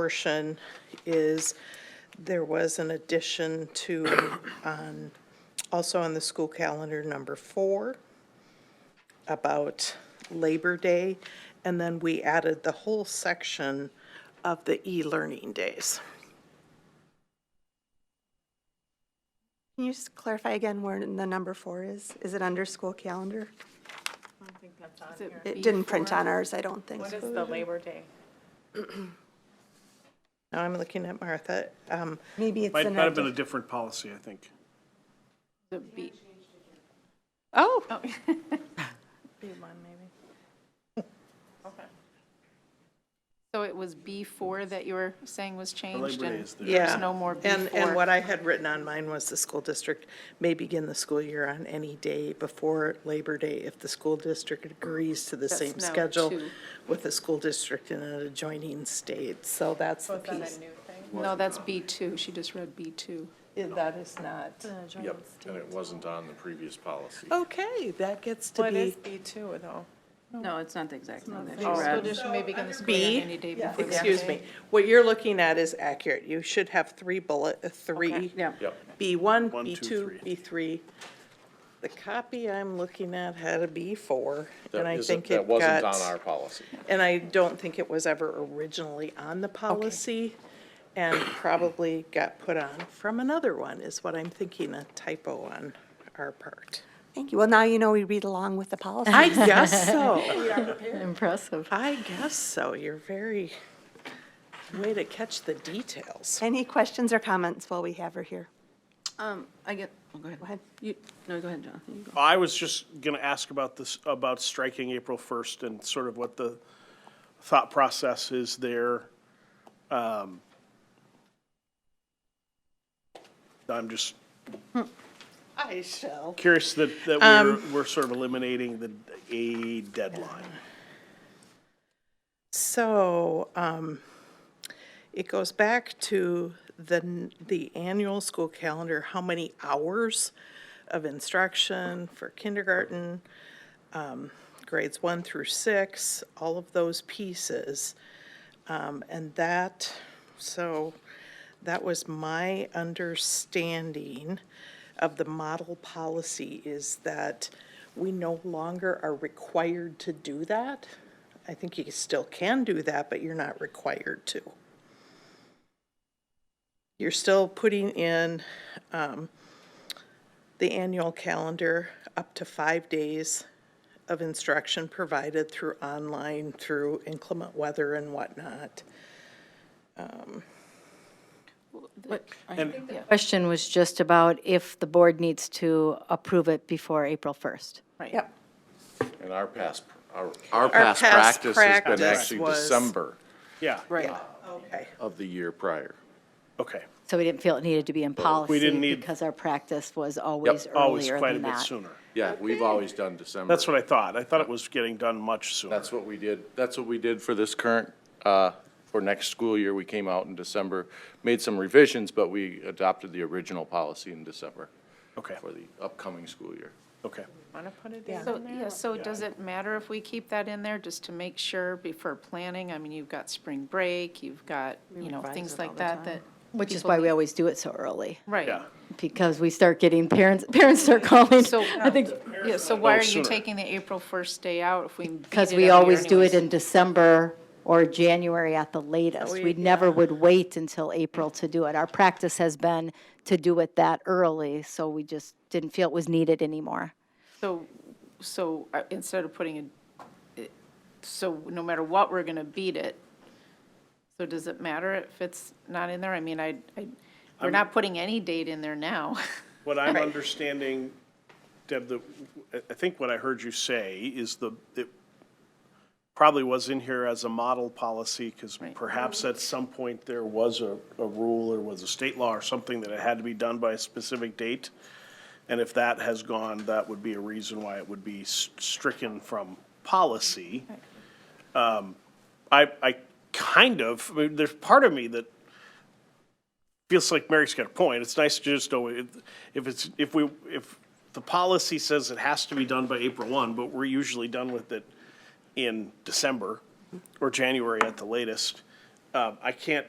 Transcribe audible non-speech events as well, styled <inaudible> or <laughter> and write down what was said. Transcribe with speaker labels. Speaker 1: portion is, there was an addition to, on, also on the school calendar, number four, about Labor Day, and then we added the whole section of the e-learning days.
Speaker 2: Can you just clarify again where the number four is? Is it under school calendar? It didn't print on ours, I don't think.
Speaker 3: What is the Labor Day?
Speaker 1: Now I'm looking at Martha. Um,
Speaker 2: Maybe it's
Speaker 4: Might,
Speaker 2: in
Speaker 4: might
Speaker 2: our,
Speaker 4: have been a different policy, I think.
Speaker 3: The beat.
Speaker 1: Oh,
Speaker 3: So it was B4 that you were saying was changed?
Speaker 4: Labor Day
Speaker 3: and
Speaker 4: is there.
Speaker 1: yeah.
Speaker 3: There's no more
Speaker 1: And,
Speaker 3: before.
Speaker 1: and what I had written on mine was the school district may begin the school year on any day before Labor Day if the school district agrees to the
Speaker 3: That's
Speaker 1: same
Speaker 3: now
Speaker 1: schedule
Speaker 3: two.
Speaker 1: with the school district in an adjoining state. So that's the piece.
Speaker 3: No, that's B2. She just read B2.
Speaker 1: Yeah, That is not.
Speaker 5: Yep, and it wasn't on the previous policy.
Speaker 1: Okay, that gets to be
Speaker 6: B2, though?
Speaker 7: No, it's not the exact one that she
Speaker 3: School
Speaker 7: read.
Speaker 3: district may begin the school year
Speaker 1: B.
Speaker 3: on any day before. the-
Speaker 1: Excuse me. What you're looking at is accurate. You should have three bullet, uh, three.
Speaker 7: Yeah.
Speaker 5: Yep.
Speaker 1: B1,
Speaker 4: One, two,
Speaker 1: B2, B3. The copy I'm looking at had a B4,
Speaker 5: That
Speaker 1: and I
Speaker 5: isn't-
Speaker 1: think it
Speaker 5: That wasn't on our
Speaker 1: got,
Speaker 5: policy.
Speaker 1: and I don't think it was ever originally on the policy, and probably got put on from another one, is what I'm thinking, a typo on our part.
Speaker 2: thank you. Well, now you know we read along with the policy.
Speaker 1: I guess so.
Speaker 7: Impressive.
Speaker 1: <laughs> I guess so. You're very, way to catch the details.
Speaker 2: Any questions or comments while we have her here?
Speaker 7: Um, I get, oh, go ahead. Go
Speaker 2: ahead.
Speaker 7: You, no, go ahead, Jonathan. You go.
Speaker 4: I was just going to ask about this, about striking April 1st and sort of what the thought process is there. Um, I'm just
Speaker 1: I shall.
Speaker 4: curious that, that we're, we're sort of eliminating the, a deadline.
Speaker 1: So, um, it goes back to the, n- the annual school calendar, how many hours of instruction for kindergarten, um, grades one through six, all of those pieces. Um, and that, so that was my understanding of the model policy is that we no longer are required to do that. I think you still can do that, but you're not required to. You're still putting in um, the annual calendar up to five days of instruction provided through online, through inclement weather and whatnot.
Speaker 8: Question was just about if the board needs to approve it before April 1st.
Speaker 2: Yep.
Speaker 5: And our past, our,
Speaker 9: Our past
Speaker 1: past
Speaker 9: practice has been
Speaker 1: practice
Speaker 9: actually
Speaker 1: was-
Speaker 9: December
Speaker 4: Yeah,
Speaker 1: Right. Okay.
Speaker 9: of the year prior.
Speaker 4: okay.
Speaker 8: So we didn't feel it needed to be in policy.
Speaker 4: didn't need-
Speaker 8: Because our practice was always
Speaker 4: Always
Speaker 8: earlier
Speaker 4: quite a
Speaker 8: than
Speaker 4: bit
Speaker 8: that.
Speaker 4: sooner.
Speaker 9: Yeah, we've always done December.
Speaker 4: That's what I thought. I thought it was getting done much sooner.
Speaker 9: That's what we did, that's what we did for this current, uh, for next school year. We came out in December, made some revisions, but we adopted the original policy in December
Speaker 4: Okay,
Speaker 9: for the upcoming school year.
Speaker 4: okay.
Speaker 6: Want to put it in
Speaker 3: So, yeah, so does it matter if we keep that in there just to make sure before planning? I mean, you've got spring break, you've got, you know, things like that that.
Speaker 8: Which is
Speaker 3: people
Speaker 8: why we
Speaker 3: need-
Speaker 8: always do it so early,
Speaker 3: Right.
Speaker 4: Yeah.
Speaker 8: because we start getting parents, <laughs> parents start calling.
Speaker 3: So,
Speaker 8: I think,
Speaker 3: yeah, so why
Speaker 4: No,
Speaker 3: are you
Speaker 4: sooner.
Speaker 3: taking the April 1st day out if we? beat
Speaker 8: because
Speaker 3: it every
Speaker 8: we
Speaker 3: year
Speaker 8: always do it
Speaker 3: anyways? Oh,
Speaker 8: in December or January at the latest. We never would wait until April to do it. Our practice has been to do it that early, so we just didn't feel it was needed anymore.
Speaker 3: So, so uh, instead of putting it, it- so no matter what, we're going to beat it. So does it matter if it's not in there? I mean, I, I, we're not putting any date in there now. <laughs>
Speaker 4: What I'm understanding, Deb, the, I- I think what I heard you say is the, it probably was in here as a model policy, because perhaps at some point there was a, a rule or was a state law or something that it had to be done by a specific date. And if that has gone, that would be a reason why it would be s- stricken from policy. Um, I, I kind of, I mean, there's part of me that feels like Mary's got a point. It's nice to just know if if it's, if we, if the policy says it has to be done by April one, but we're usually done with it in December or January at the latest. Uh, I can't